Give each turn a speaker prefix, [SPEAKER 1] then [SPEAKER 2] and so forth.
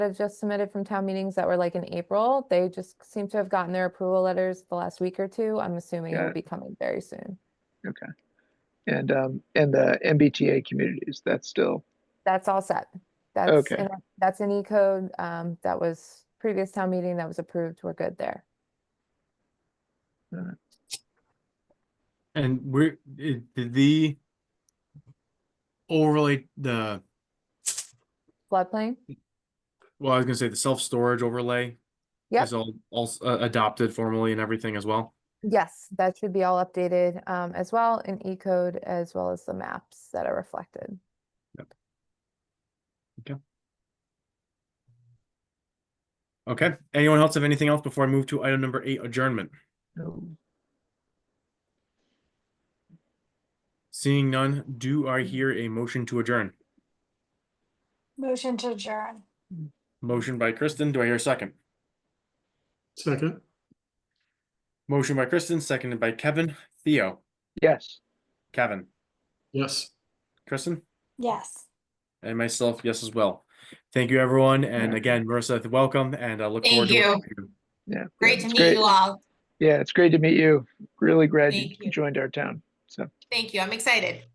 [SPEAKER 1] have just submitted from town meetings that were like in April. They just seem to have gotten their approval letters the last week or two. I'm assuming
[SPEAKER 2] Got
[SPEAKER 1] it'll
[SPEAKER 2] it.
[SPEAKER 1] be coming very soon.
[SPEAKER 2] And, um, and the MBTA communities, that's still,
[SPEAKER 1] That's all set. That's,
[SPEAKER 2] Okay.
[SPEAKER 1] in- that's an E code. Um, that was previous town meeting that was approved. We're good there.
[SPEAKER 3] And we're it, the overlay the
[SPEAKER 1] Floodplain?
[SPEAKER 3] well, I was gonna say the self storage overlay
[SPEAKER 1] Yep.
[SPEAKER 3] is all also uh, adopted formally and everything as well.
[SPEAKER 1] Yes, that should be all updated, um, as well in E code as well as the maps that are reflected.
[SPEAKER 3] Okay. Anyone else have anything else before I move to item number eight, adjournment?
[SPEAKER 2] um,
[SPEAKER 3] Seeing none, do I hear a motion to adjourn?
[SPEAKER 4] Motion to adjourn.
[SPEAKER 3] Motion by Kristen. Do I hear a second?
[SPEAKER 5] Second,
[SPEAKER 3] Motion by Kristen, seconded by Kevin. Theo,
[SPEAKER 2] yes.
[SPEAKER 3] Kevin,
[SPEAKER 5] yes.
[SPEAKER 3] Kristen,
[SPEAKER 4] Yes.
[SPEAKER 3] and myself, yes as well. Thank you, everyone. And
[SPEAKER 2] Yeah.
[SPEAKER 3] again, Marissa, welcome, and I look forward
[SPEAKER 6] Thank
[SPEAKER 3] to
[SPEAKER 6] you.
[SPEAKER 3] working with you.
[SPEAKER 2] Yeah.
[SPEAKER 6] Great
[SPEAKER 2] it's
[SPEAKER 6] to meet you all.
[SPEAKER 2] Yeah, it's great to meet you. Really glad you
[SPEAKER 6] Thank you.
[SPEAKER 2] joined our town. So.
[SPEAKER 6] Thank you. I'm excited.